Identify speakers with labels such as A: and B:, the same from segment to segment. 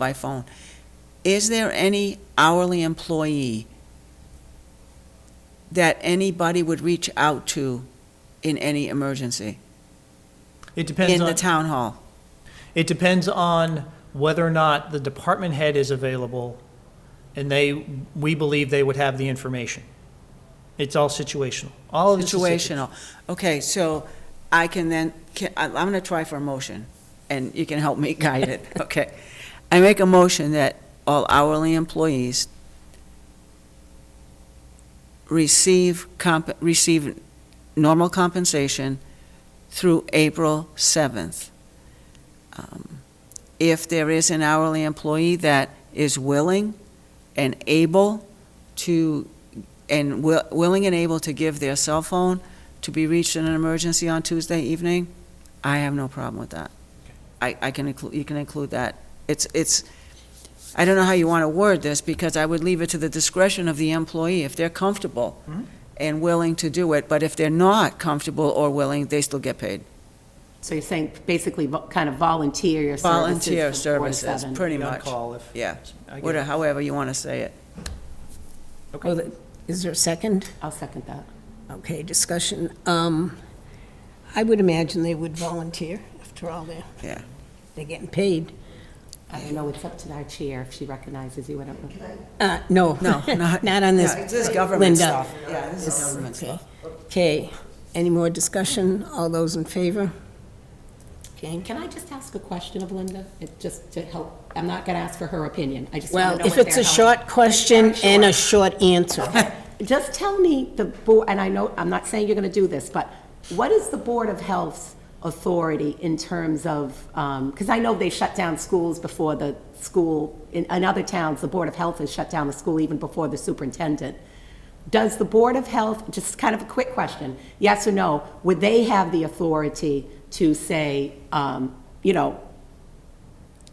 A: by phone. Is there any hourly employee that anybody would reach out to in any emergency
B: It depends
A: in the
B: on,
A: town hall?
B: it depends on whether or not the department head is available, and they, we believe they would have the information. It's all situational. All of this is situ-
A: Situational. Okay, so I can then, can- I- I'm going to try for a motion, and you can help me guide it, okay? I make a motion that all hourly employees receive comp, receive normal compensation through April 7th. Um, If there is an hourly employee that is willing and able to, and wi- willing and able to give their cell phone to be reached in an emergency on Tuesday evening, I have no problem with that. I, I can include, you can include that. It's, it's, I don't know how you want to word this, because I would leave it to the discretion of the employee if they're comfortable
B: Mhm.
A: and willing to do it, but if they're not comfortable or willing, they still get paid.
C: So you're saying basically vo- kind of volunteer your services?
A: Volunteer
C: from four to
A: services,
C: seven.
A: pretty
B: Be on
A: much.
B: call if-
A: Yeah,
B: I get
A: whatever,
B: it.
A: however you want to say it.
D: Oh, the- Is there a second?
C: I'll second that.
D: Okay, discussion. Um, I would imagine they would volunteer, after all, they're,
A: Yeah.
D: they're getting paid.
C: I don't know, it's up to our chair if she recognizes you, I don't know.
D: Uh, no.
A: No, not.
D: Not on this.
A: Yeah, This is government
D: Linda.
A: stuff. Yeah, this is government
D: Okay.
A: stuff.
D: Okay, any more discussion? All those in favor? Okay.
C: Can I just ask a question of Linda? It- Just to help, I'm not going to ask for her opinion, I just want to
D: Well,
C: know
D: if
C: what
D: it's
C: their
D: a
C: health-
D: short question and a short answer,
C: Just tell me the board, and I know, I'm not saying you're going to do this, but what is the Board of Health's authority in terms of, because I know they shut down schools before the school, in, in other towns, the Board of Health has shut down the school even before the superintendent. Does the Board of Health, just kind of a quick question, yes or no, would they have the authority to say, um, you know,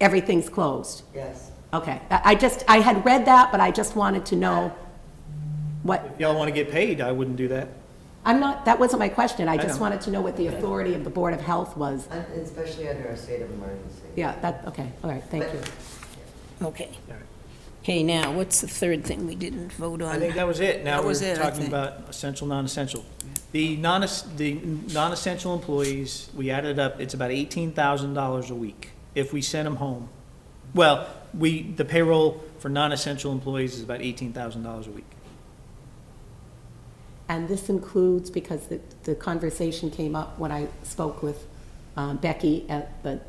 C: everything's closed?
E: Yes.
C: Okay, I I just, I had read that, but I just wanted to know what.
B: If y'all want to get paid, I wouldn't do that.
C: I'm not, that wasn't my question, I just
B: know.
C: wanted to know what the authority of the Board of Health was.
E: Un- Uh, Especially under a state of emergency.
C: Yeah, that, okay, all right, thank you.
D: okay. Okay, now, what's the third thing we didn't vote
B: I
D: on?
B: think that was it. Now
A: That was
B: we're
A: it, I
B: talking
A: think.
B: about essential, non-essential. The non, the non-essential employees, we added up, it's about eighteen thousand dollars a week if we sent them home. Well, we, the payroll for non-essential employees is about eighteen thousand dollars a week.
C: And this includes, because the, the conversation came up when I spoke with um, Becky at the,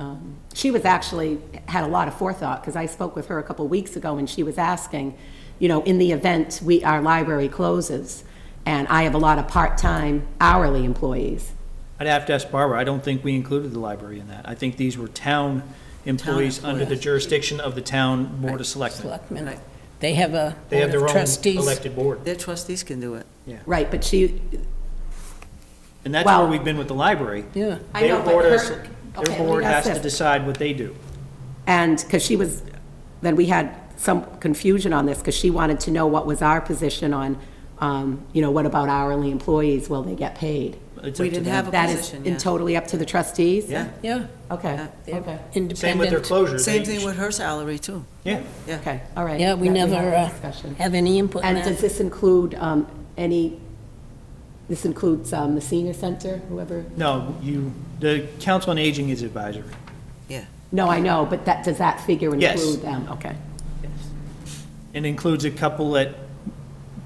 C: um, she was actually, had a lot of forethought, because I spoke with her a couple weeks ago, and she was asking, you know, in the event we, our library closes, and I have a lot of part-time hourly employees,
B: I'd have to ask Barbara, I don't think we included the library in that. I think these were town employees under the jurisdiction of the town Board of Selectmen.
D: Selectmen,
A: Right.
D: they have a
B: They have
D: board
B: their
D: of
B: own
D: trustees.
B: elected board.
A: Their trustees can do it.
C: right, but she,
B: And that's where
C: Well-
B: we've been with the library.
D: Yeah.
C: I
B: Their
C: know, but
B: board
C: her-
B: has-
C: okay,
B: Their board
C: let
B: has
C: me ask
B: to
C: this.
B: decide what they do.
C: And, because she was, then we had some confusion on this, because she wanted to know what was our position on, um, you know, what about hourly employees, will they get paid?
B: It's
A: We
B: up to
A: didn't
B: them.
A: have a
C: That is
A: position,
C: in
A: yeah. Uh,
C: totally up to the trustees?
B: Yeah.
D: Yeah,
C: Okay,
D: they're
C: okay,
D: independent.
B: Same with their closures.
A: Same
B: They-
A: thing with her salary, too.
B: Yeah,
C: okay, all right.
D: Yeah, we
C: That
D: never
C: had
D: uh,
C: discussion.
D: have any input in
C: And does
D: that.
C: this include um, any, this includes um, the senior center, whoever?
B: no, you, the Council on Aging is advisory.
A: Yeah.
C: No, I know, but that, does that figure
B: Yes.
C: include them? Okay,
B: It includes a couple at,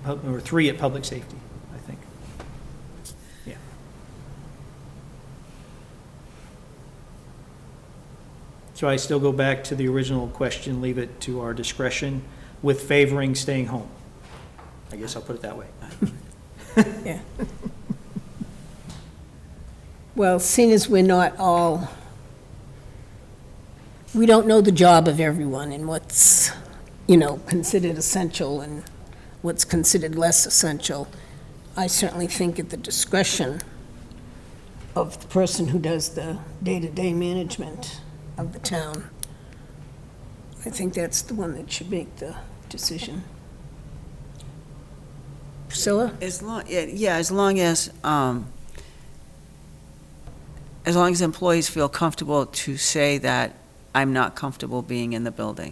B: pub- or three at Public Safety, I think. Yeah. So I still go back to the original question, leave it to our discretion with favoring staying home. I guess I'll put it that way.
D: Well, seeing as we're not all, we don't know the job of everyone and what's, you know, considered essential and what's considered less essential, I certainly think at the discretion of the person who does the day-to-day management of the town, I think that's the one that should make the decision. Priscilla?
A: As long, yeah, yeah, as long as, um, as long as employees feel comfortable to say that I'm not comfortable being in the building.